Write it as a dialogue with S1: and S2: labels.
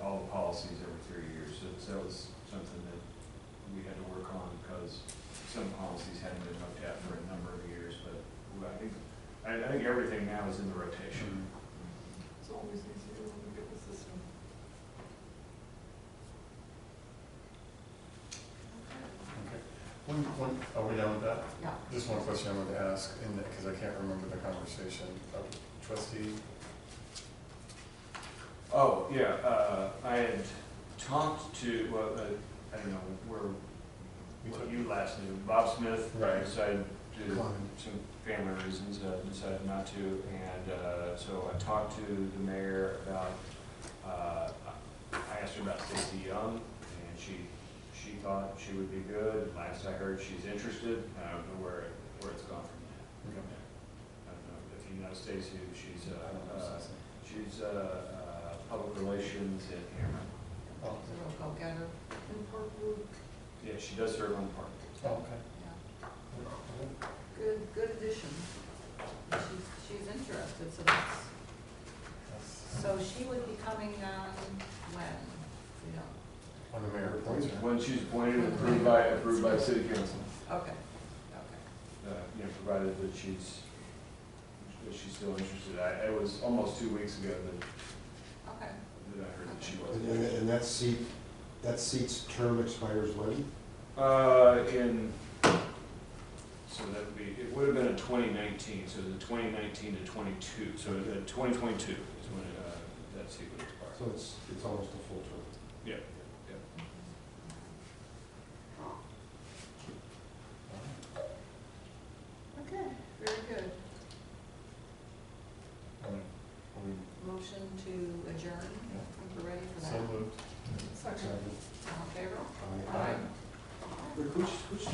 S1: policies every three years. So that was something that we had to work on because some policies hadn't been looked at for a number of years, but I think, I, I think everything now is in the rotation.
S2: It's always easier when we get the system.
S3: Okay. One, one, are we done with that?
S2: Yeah.
S3: Just one question I wanted to ask, in that, because I can't remember the conversation. Uh, Trustee,
S1: Oh, yeah, uh, I had talked to, well, uh, I don't know, where,
S3: We
S1: what
S3: took-
S1: you last knew, Bob Smith.
S3: Right.
S1: Decided to,
S3: Climbed.
S1: some family reasons, uh, decided not to, and, uh, so I talked to the mayor about, uh, I asked her about Stacy Young, and she, she thought she would be good, last I heard, she's interested, I don't know where, it- where it's gone from there. I don't know if you know Stacy, she's, uh, uh, She's uh, uh, public relations at Cameron.
S2: Is
S3: oh,
S2: it a go-getter in Park Road?
S1: Yeah, she does serve on the park.
S3: oh, okay.
S2: Yeah. Good, good addition. And She's, she's interested, so that's,
S3: That's-
S2: so she would be coming on when? We don't,
S3: On the mayor appoints her.
S1: When she's appointed, approved by, approved by city council.
S2: okay, okay.
S1: Uh, You know, provided that she's, that she's still interested. I, it was almost two weeks ago that,
S2: Okay.
S1: that I heard that she
S4: And,
S1: was.
S4: and- and that seat, that seat's term expires when?
S1: Uh, in, so that would be, it would have been in twenty nineteen, so the twenty nineteen to twenty-two, so uh, twenty twenty-two is when uh, that seat would expire.
S4: So it's, it's almost a full term.
S1: Yeah.
S2: Okay, very good.
S3: All right. Are we-
S2: Motion to adjourn, if we're ready for that.
S3: So moved.
S2: Second. All in favor?
S4: Aye.
S2: Aye.
S1: Rick, who's, who's